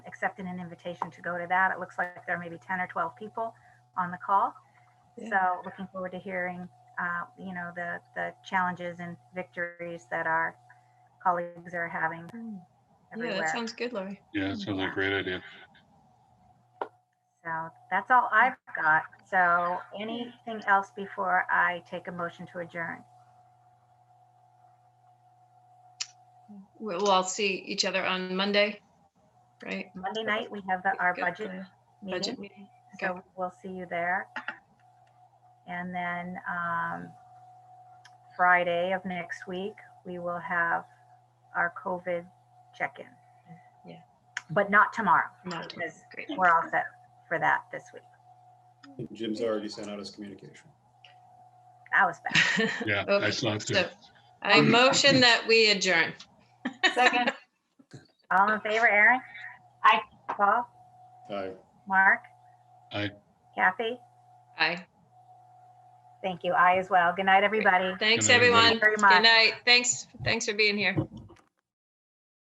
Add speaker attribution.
Speaker 1: accepted an invitation to go to that. It looks like there may be 10 or 12 people on the call.
Speaker 2: Yeah.
Speaker 1: So looking forward to hearing, uh, you know, the, the challenges and victories that our colleagues are having
Speaker 2: Yeah, that
Speaker 1: everywhere.
Speaker 2: sounds good, Lori.
Speaker 3: Yeah, it sounds like a great idea.
Speaker 1: So that's all I've got. So anything else before I take a motion to adjourn?
Speaker 2: We- We'll all see each other on Monday, right?
Speaker 1: Monday night, we have the- our
Speaker 2: Good,
Speaker 1: budget
Speaker 2: uh,
Speaker 1: meeting.
Speaker 2: Budget meeting.
Speaker 1: So
Speaker 2: Okay.
Speaker 1: we'll see you there. And then um, Friday of next week, we will have our COVID check-in.
Speaker 2: Yeah.
Speaker 1: But not tomorrow,
Speaker 2: Not tomorrow.
Speaker 1: because
Speaker 2: Great.
Speaker 1: we're all set for that this week.
Speaker 4: Jim's already sent out his communication.
Speaker 1: That was bad.
Speaker 3: Yeah, I
Speaker 2: Okay,
Speaker 3: saw it too.
Speaker 2: so I motion that we adjourn.
Speaker 5: Second,
Speaker 1: All in favor, Aaron? Aye. Paul?
Speaker 4: Aye.
Speaker 1: Mark?
Speaker 3: Aye.
Speaker 1: Kathy?
Speaker 2: Aye.
Speaker 1: Thank you. I as well. Good night, everybody.
Speaker 2: Thanks,
Speaker 3: Good night, everybody.
Speaker 2: everyone.
Speaker 1: Very
Speaker 2: Good
Speaker 1: much.
Speaker 2: night. Thanks, thanks for being here.